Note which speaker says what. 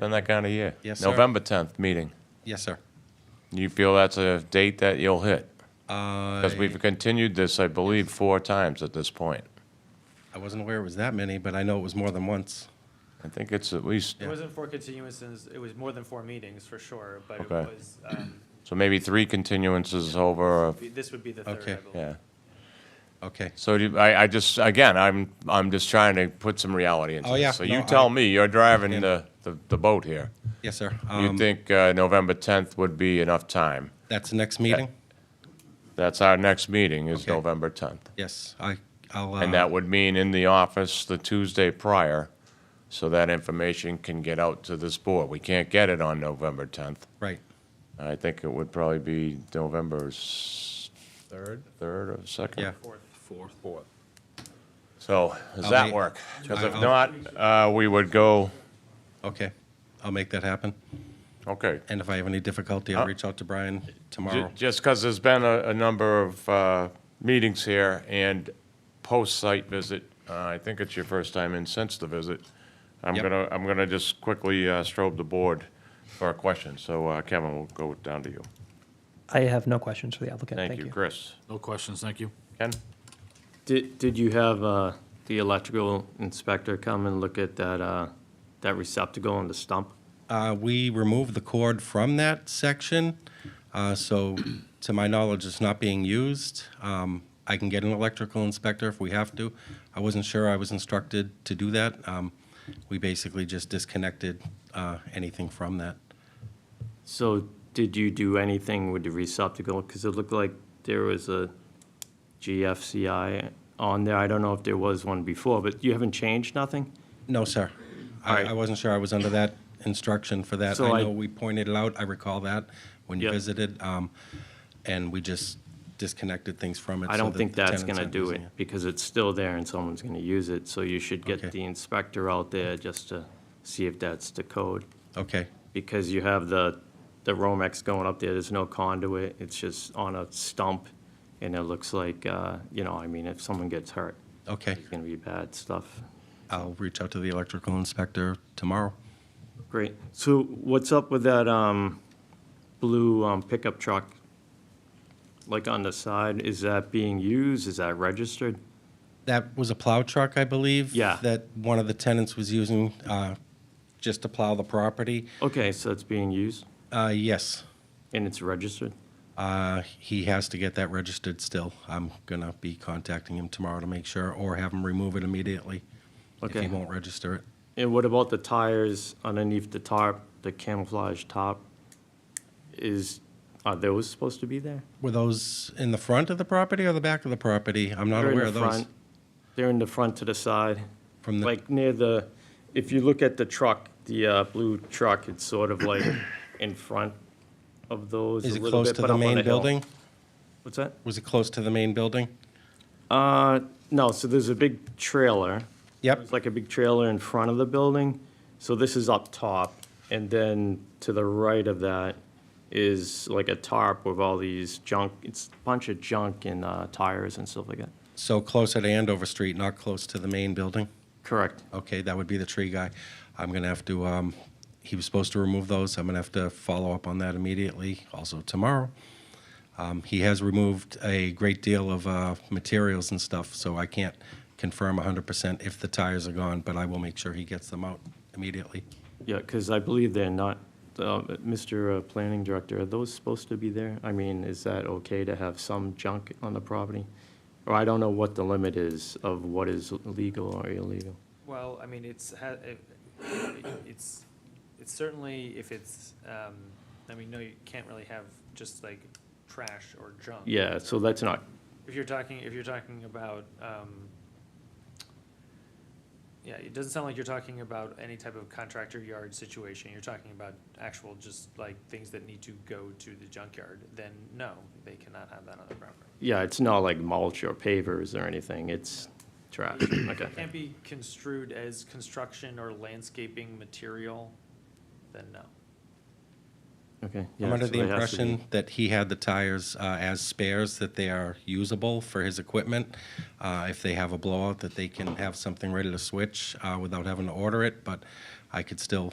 Speaker 1: Done that kind of year.
Speaker 2: Yes, sir.
Speaker 1: November 10th meeting.
Speaker 2: Yes, sir.
Speaker 1: You feel that's a date that you'll hit? Because
Speaker 2: I
Speaker 1: we've continued this, I believe, four times at this point.
Speaker 2: I wasn't aware it was that many, but I know it was more than once.
Speaker 1: I think it's at least,
Speaker 3: It wasn't four continuances, it was more than four meetings for sure, but it
Speaker 1: Okay.
Speaker 3: was, um,
Speaker 1: so maybe three continuances over, or-
Speaker 3: this would be the third, I
Speaker 2: Okay.
Speaker 3: believe.
Speaker 1: yeah.
Speaker 2: Okay.
Speaker 1: So do, you- I, I just, again, I'm, I'm just trying to put some reality into
Speaker 2: Oh,
Speaker 1: this.
Speaker 2: yeah.
Speaker 1: So you
Speaker 2: No,
Speaker 1: tell
Speaker 2: I-
Speaker 1: me, you're driving the, the the boat here.
Speaker 2: Yes, sir.
Speaker 1: You
Speaker 2: Um,
Speaker 1: think uh, November 10th would be enough time?
Speaker 2: That's the next meeting?
Speaker 1: That's our next meeting is
Speaker 2: Okay.
Speaker 1: November 10th.
Speaker 2: Yes, I, I'll,
Speaker 1: And
Speaker 2: uh,
Speaker 1: that would mean in the office the Tuesday prior, so that information can get out to this board. We can't get it on November 10th.
Speaker 2: right.
Speaker 1: I think it would probably be November 3rd? 3rd or 2nd?
Speaker 2: Yeah.
Speaker 1: So, does
Speaker 2: I'll
Speaker 1: that
Speaker 2: make-
Speaker 1: work? Because if
Speaker 2: I'll-
Speaker 1: not, uh, we would go,
Speaker 2: Okay. I'll make that happen.
Speaker 1: okay.
Speaker 2: And if I have any difficulty,
Speaker 1: Uh,
Speaker 2: I'll reach out to Brian
Speaker 1: Ju-
Speaker 2: tomorrow.
Speaker 1: Just because there's been a, a number of uh, meetings here and post-site visit, uh, I think it's your first time in since the visit. I'm
Speaker 2: Yep.
Speaker 1: gonna, I'm gonna just quickly uh, strobe the board for a question. So uh, Kevin, we'll go down to you.
Speaker 4: I have no questions for the applicant.
Speaker 1: Thank you. Chris?
Speaker 5: No questions, thank you.
Speaker 1: Ken?
Speaker 6: Did, did you have uh, the electrical inspector come and look at that, uh, that receptacle on the stump?
Speaker 2: Uh, we removed the cord from that section, uh, so to my knowledge, it's not being used. Um, I can get an electrical inspector if we have to. I wasn't sure I was instructed to do that. Um, we basically just disconnected, uh, anything from that.
Speaker 6: So did you do anything with the receptacle? Because it looked like there was a GFCI on there. I don't know if there was one before, but you haven't changed nothing?
Speaker 2: No, sir.
Speaker 6: All
Speaker 2: I,
Speaker 6: right.
Speaker 2: I wasn't sure I was under that instruction for that.
Speaker 6: So
Speaker 2: I
Speaker 6: I-
Speaker 2: know we pointed it out, I recall that when you
Speaker 6: Yep.
Speaker 2: visited, um, and we just disconnected things from it.
Speaker 6: I
Speaker 2: so
Speaker 6: don't
Speaker 2: that
Speaker 6: think
Speaker 2: the
Speaker 6: that's
Speaker 2: tenants
Speaker 6: gonna
Speaker 2: aren't
Speaker 6: do
Speaker 2: using
Speaker 6: it, because it's still there and someone's gonna use it. So you should
Speaker 2: Okay.
Speaker 6: get the inspector out there just to see if that's the code.
Speaker 2: Okay,
Speaker 6: because you have the, the Romex going up there, there's no conduit, it's just on a stump, and it looks like, uh, you know, I mean, if someone gets hurt,
Speaker 2: okay.
Speaker 6: it's gonna be bad stuff.
Speaker 2: I'll reach out to the electrical inspector tomorrow.
Speaker 6: Great, so what's up with that, um, blue um, pickup truck? Like on the side, is that being used, is that registered?
Speaker 2: That was a plow truck, I believe.
Speaker 6: Yeah.
Speaker 2: That one of the tenants was using uh, just to plow the property.
Speaker 6: Okay, so it's being used,
Speaker 2: Uh, Yes,
Speaker 6: and it's registered?
Speaker 2: Uh, he has to get that registered still. I'm going to be contacting him tomorrow to make sure, or have him remove it immediately if he
Speaker 6: Okay.
Speaker 2: won't register it.
Speaker 6: And what about the tires underneath the tarp, the camouflage top? Is, are those supposed to be there?
Speaker 2: Were those in the front of the property or the back of the property? I'm not
Speaker 6: They're in
Speaker 2: aware
Speaker 6: the
Speaker 2: of those.
Speaker 6: front. They're in the front to the side,
Speaker 2: From the,
Speaker 6: like near the, if you look at the truck, the uh, blue truck, it's sort of like in front of those a
Speaker 2: is it
Speaker 6: little
Speaker 2: close
Speaker 6: bit,
Speaker 2: to
Speaker 6: but
Speaker 2: the
Speaker 6: up on
Speaker 2: main
Speaker 6: the hill.
Speaker 2: building?
Speaker 6: What's that?
Speaker 2: Was it close to the main building?
Speaker 6: Uh, no, so there's a big trailer.
Speaker 2: Yep,
Speaker 6: It's like a big trailer in front of the building. So this is up top, and then to the right of that is like a tarp with all these junk, it's a bunch of junk and uh, tires and stuff like that.
Speaker 2: so closer to Andover Street, not close to the main building?
Speaker 6: Correct.
Speaker 2: Okay, that would be the tree guy. I'm gonna have to, um, he was supposed to remove those. I'm gonna have to follow up on that immediately, also tomorrow. Um, he has removed a great deal of, uh, materials and stuff, so I can't confirm hundred percent if the tires are gone, but I will make sure he gets them out immediately.
Speaker 6: Yeah, because I believe they're not, uh, Mr. uh, Planning Director, are those supposed to be there? I mean, is that okay to have some junk on the property? Or I don't know what the limit is of what is legal or illegal.
Speaker 3: Well, I mean, it's, ha- it- it's, it's certainly, if it's, um, I mean, no, you can't really have just like trash or junk.
Speaker 6: Yeah, so that's not,
Speaker 3: If you're talking, if you're talking about, um, yeah, it doesn't sound like you're talking about any type of contractor yard situation. You're talking about actual, just like things that need to go to the junkyard, then no, they cannot have that on their property.
Speaker 6: yeah, it's not like mulch or pavers or anything, it's trash, okay.
Speaker 3: Can't be construed as construction or landscaping material, then no.
Speaker 6: Okay. yeah,
Speaker 2: I'm under
Speaker 6: so
Speaker 2: the
Speaker 6: it has to be-
Speaker 2: impression that he had the tires uh, as spares, that they are usable for his equipment. Uh, If they have a blowout, that they can have something ready to switch uh, without having to order it, but I could still